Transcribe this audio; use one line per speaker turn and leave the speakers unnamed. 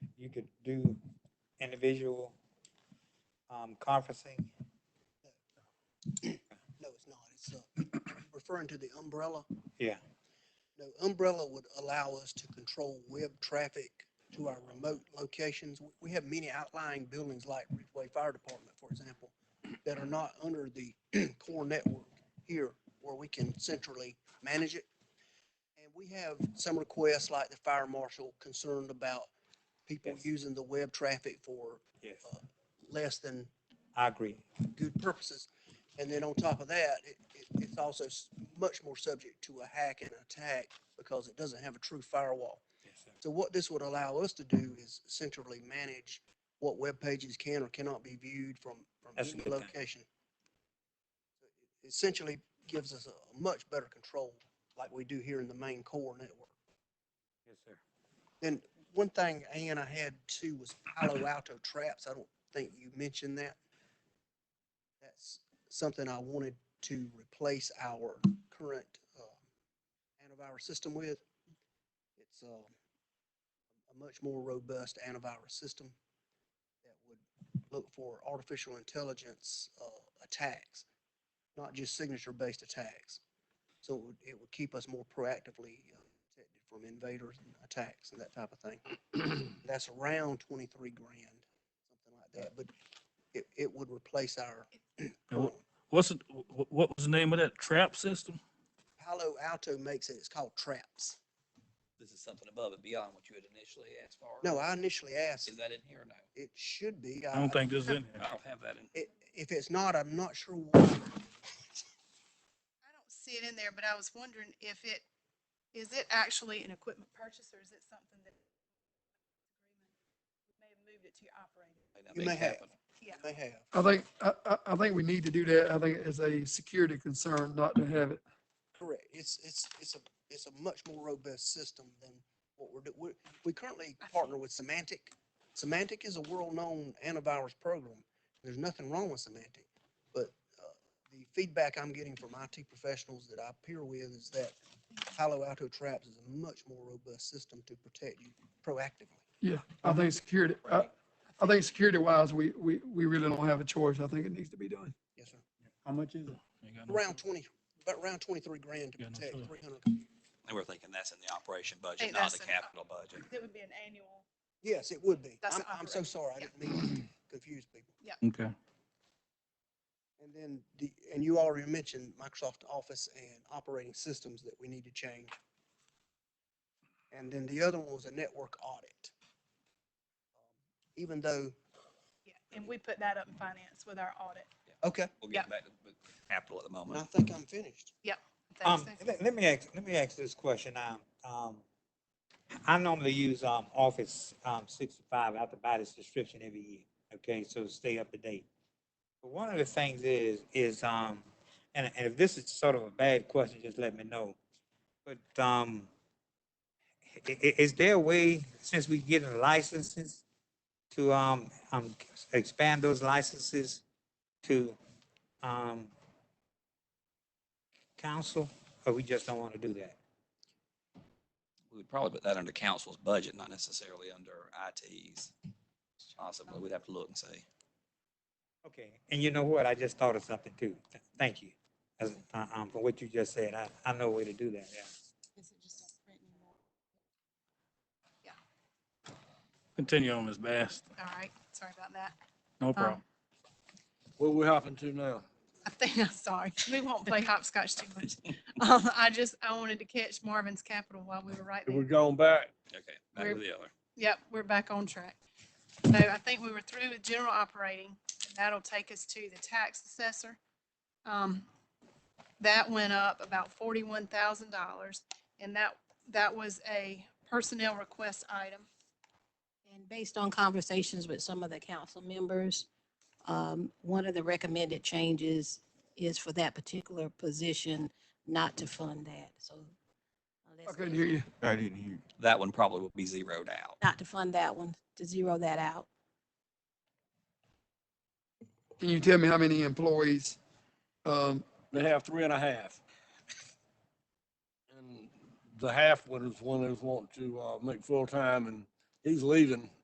could do individual um, conferencing.
No, it's not. It's uh, referring to the umbrella.
Yeah.
No, umbrella would allow us to control web traffic to our remote locations. W- We have many outlying buildings like Ridgeway Fire Department, for example, that are not under the core network here where we can centrally manage it. And we have some requests like the fire marshal concerned about people
Yes.
using the web traffic for
Yes.
less than
I agree.
good purposes. And then on top of that, it, it, it's also s- much more subject to a hack and attack because it doesn't have a true firewall. So what this would allow us to do is centrally manage what web pages can or cannot be viewed from, from
That's a
any
good thing.
location. It Essentially gives us a much better control like we do here in the main core network.
Yes, sir.
Then one thing, Ann, I had too was Palo Alto traps. I don't think you mentioned that. That's something I wanted to replace our current uh, antivirus system with. It's uh, a much more robust antivirus system that would look for artificial intelligence uh, attacks, not just signature-based attacks. So it would, it would keep us more proactively uh, protected from invaders and attacks and that type of thing. That's around twenty-three grand, something like that, but it, it would replace our
And
current
what- What's it, wh- what was the name of that trap system?
Palo Alto makes it, it's called traps.
This is something above and beyond what you had initially asked for.
No, I initially asked,
Is that in here or no?
it should be.
I don't think this is in
I
here.
don't have that in.
i- If it's not, I'm not sure why.
I don't see it in there, but I was wondering if it, is it actually an equipment purchase or is it something that we may have moved it to your operating?
that
You
make
may have.
happen.
Yeah.
they have.
I think, I, I, I think we need to do that. I think it's a security concern not to have it.
Correct. It's, it's, it's a, it's a much more robust system than what we're, do- we, we currently partner with Semantic. Semantic is a world-known antivirus program. There's nothing wrong with Semantic. But, uh, the feedback I'm getting from IT professionals that I peer with is that Palo Alto Traps is a much more robust system to protect you proactively.
Yeah, I think security, I, I think security wise, we, we, we really don't have a choice. I think it needs to be done.
Yes, sir.
How much is it?
Ain't got no-
Around twenty, about around twenty-three grand to
Yeah, no,
protect
sure.
three hundred.
And we're thinking that's in the operation budget,
Think
not
that's
the
in-
capital budget.
It would be an annual.
Yes, it would be.
That's
I'm,
an
I'm so
operating,
sorry. I
yeah.
didn't mean to confuse people.
Okay.
And then the, and you already mentioned Microsoft Office and operating systems that we need to change. And then the other one was a network audit. Um, Even though,
Yeah, and we put that up in finance with our audit.
okay,
We'll
Yeah.
get back to the capital at the
and I
moment.
think I'm finished.
Um,
Thanks, Nick.
let, let me ask, let me ask this question. Um, um, I normally use, um, Office, um, sixty-five out the body subscription every year. Okay, so stay up to date. But one of the things is, is, um, and, and if this is sort of a bad question, just let me know. But, um, i- i- is there a way, since we getting licenses, to, um, um, expand those licenses to, um, council, or we just don't want to do that?
We would probably put that under council's budget, not necessarily under IT's. Possibly, we'd have to look and see.
Okay, and you know what? I just thought of something too. Th- Thank you. As, uh, um, for what you just said, I, I know a way to do that, yeah.
Continue on, Ms. Bass.
All right, sorry about that.
No problem.
What we hopping to now?
I think, I'm sorry, we won't play hopscotch too much. Um, I just, I wanted to catch Marvin's capital while we were right
We're
there.
going back.
Okay, back to
We're-
the other.
Yep, we're back on track. So I think we were through with general operating, and that'll take us to the tax assessor. Um, That went up about forty-one thousand dollars, and that, that was a personnel request item.
And based on conversations with some of the council members, um, one of the recommended changes is for that particular position not to fund that, so. unless
I couldn't
there's-
hear you.
I didn't hear.
That one probably will be zeroed out.
Not to fund that one, to zero that out.
Can you tell me how many employees, um,
They have three and a half. And the half one is one that's wanting to, uh, make full-time and he's leaving